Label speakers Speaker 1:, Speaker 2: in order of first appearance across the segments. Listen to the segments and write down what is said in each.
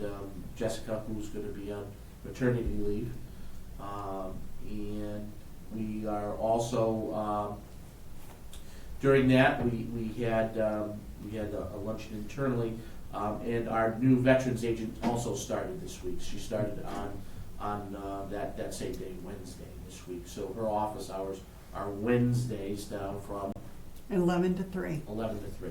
Speaker 1: um, Jessica, who's gonna be on maternity leave. Um, and we are also, um, during that, we, we had, um, we had a a luncheon internally. Um, and our new veterans agent also started this week. She started on, on, uh, that, that same day, Wednesday this week. So her office hours are Wednesdays now from
Speaker 2: 11 to 3.
Speaker 1: eleven to three,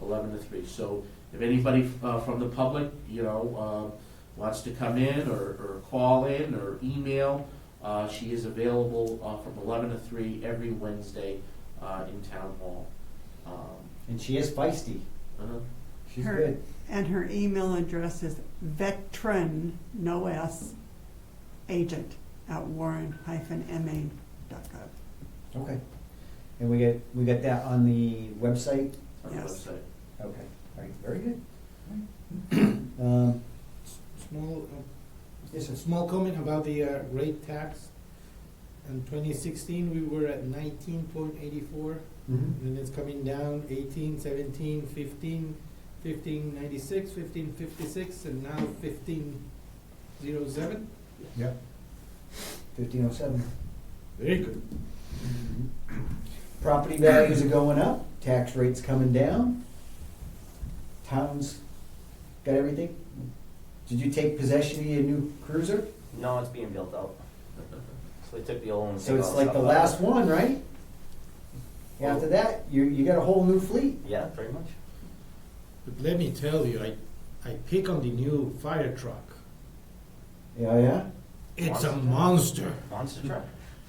Speaker 1: eleven to three. So if anybody uh, from the public, you know, uh, wants to come in or, or call in or email, uh, she is available uh, from eleven to three every Wednesday uh, in town hall. Um,
Speaker 3: And she is feisty.
Speaker 1: uh,
Speaker 3: She's
Speaker 2: Her-
Speaker 3: good.
Speaker 2: And her email address is veteran, no S, agent at warren-ma.gov.
Speaker 3: Okay. And we get we got that on the website.
Speaker 1: on the
Speaker 2: Yes.
Speaker 1: website.
Speaker 3: Okay. All right. Very good. Um,
Speaker 4: Small, uh,
Speaker 3: yes, sir.
Speaker 4: small comment about the uh, rate tax. In twenty sixteen, we were at nineteen point eighty-four,
Speaker 3: Mhm.
Speaker 4: and it's coming down 18, 17, 15, 1596, fifteen fifty-six, and now fifteen zero seven.
Speaker 3: Yep. Fifteen oh seven.
Speaker 4: Very good.
Speaker 3: Property values are going up, tax rates coming down. Towns got everything. Did you take possession of your new cruiser?
Speaker 5: No, it's being built out. So they took the old one. and
Speaker 3: So
Speaker 5: took
Speaker 3: it's
Speaker 5: all
Speaker 3: like the
Speaker 5: stuff out.
Speaker 3: last one, right? After that, you, you got a whole new fleet.
Speaker 5: Yeah, pretty much.
Speaker 4: But let me tell you, I, I pick on the new fire truck.
Speaker 3: Yeah, yeah.
Speaker 4: It's a
Speaker 5: Monster.
Speaker 4: monster.
Speaker 5: Monster truck.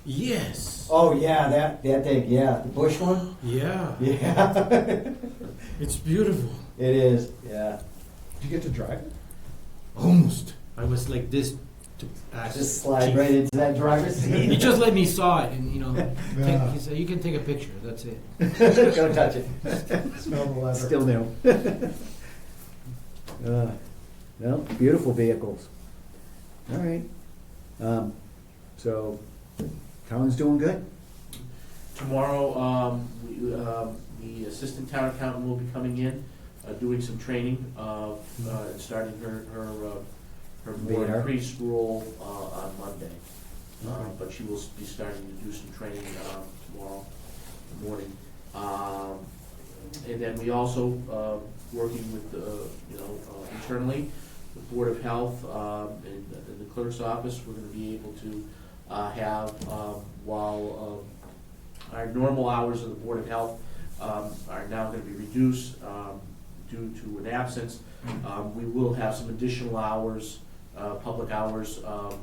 Speaker 4: Yes.
Speaker 3: Oh yeah, that that thing. Yeah, the bush one.
Speaker 4: Yeah,
Speaker 3: Yeah,
Speaker 4: it's beautiful.
Speaker 3: it is. Yeah,
Speaker 6: Did you get to drive it?
Speaker 4: Almost. I was like this to ask.
Speaker 3: just slide
Speaker 4: Chief.
Speaker 3: right into that driver's
Speaker 4: He
Speaker 3: seat.
Speaker 4: just let me saw it, and you know,
Speaker 6: Yeah.
Speaker 4: take, he said, "You can take a picture. That's it."
Speaker 3: Don't touch it.
Speaker 6: Smell the leather.
Speaker 3: Still new. uh, well, beautiful vehicles. All right. Um, so, Colin's doing good.
Speaker 1: Tomorrow, um, we, um, the assistant town accountant will be coming in, uh, doing some training, uh, uh, and starting her, her, uh, her more
Speaker 3: Vadar.
Speaker 1: increased role, uh, on Monday. Uh,
Speaker 3: Okay.
Speaker 1: but she will be starting to do some training, um, tomorrow morning. Um, and then we also, uh, working with, uh, you know, uh, internally, the Board of Health, um, and, and the clerk's office, we're gonna be able to, uh, have, um, while, um, our normal hours of the Board of Health um, are now going to be reduced um, due to an absence. Um, We will have some additional hours, uh, public hours, um,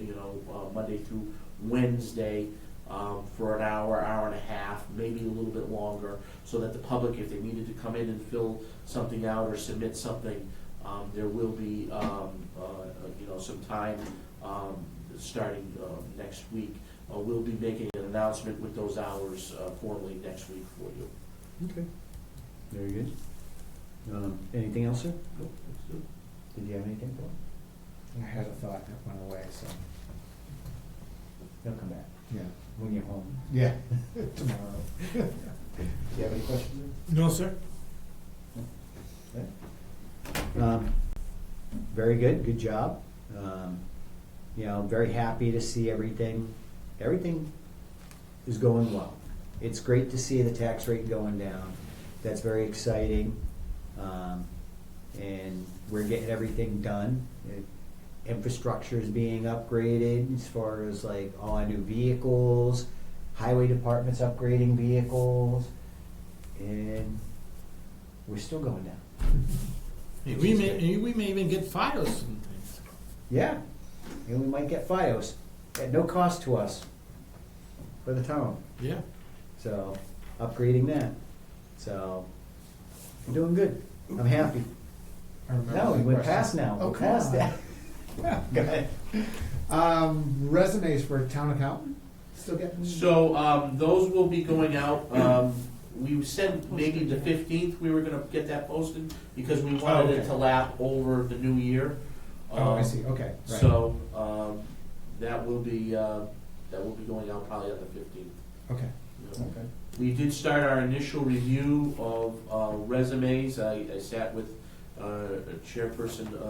Speaker 1: you know, uh, Monday through Wednesday um, for an hour, hour and a half, maybe a little bit longer, so that the public, if they needed to come in and fill something out or submit something, um, there will be, um, uh, you know, some time um, starting uh, next week. Uh, We'll be making an announcement with those hours uh, formally next week for you.
Speaker 3: Okay. Very good. Um, anything else, sir? Did you have anything for? him?
Speaker 6: I had a thought that went away, so,
Speaker 3: He'll come back
Speaker 6: yeah.
Speaker 3: when you're home.
Speaker 6: Yeah, tomorrow.
Speaker 3: Do you have any questions? sir?
Speaker 4: No, sir.
Speaker 3: Um, Very good, good job. Um, You know, I'm very happy to see everything, everything is going well. It's great to see the tax rate going down. That's very exciting. Um, And we're getting everything done. It- Infrastructure is being upgraded as far as like all our new vehicles, highway department's upgrading vehicles, and we're still going down.
Speaker 4: Hey, we may hey, we may even get files sometimes.
Speaker 3: Yeah, and we might get FiOS at no cost to us for the town.
Speaker 4: Yeah.
Speaker 3: So upgrading that. So I'm doing good. I'm happy.
Speaker 6: I remember
Speaker 3: No, we
Speaker 6: the
Speaker 3: went
Speaker 6: question.
Speaker 3: past now.
Speaker 6: Oh,
Speaker 3: We're
Speaker 6: come
Speaker 3: past
Speaker 6: on.
Speaker 3: that. Go ahead.
Speaker 6: Um, resumes for town accountant, still getting?
Speaker 1: So, um, those will be going out, um, we said maybe the fifteenth, we were gonna get that posted, because we wanted it to
Speaker 6: Oh, okay.
Speaker 1: lap over the new year.
Speaker 6: Oh, I
Speaker 1: Um,
Speaker 6: see, okay, right.
Speaker 1: So, um, that will be, uh, that will be going out probably on the fifteenth.
Speaker 6: Okay, okay.
Speaker 1: We did start our initial review of uh, resumes. I I sat with uh, Chairperson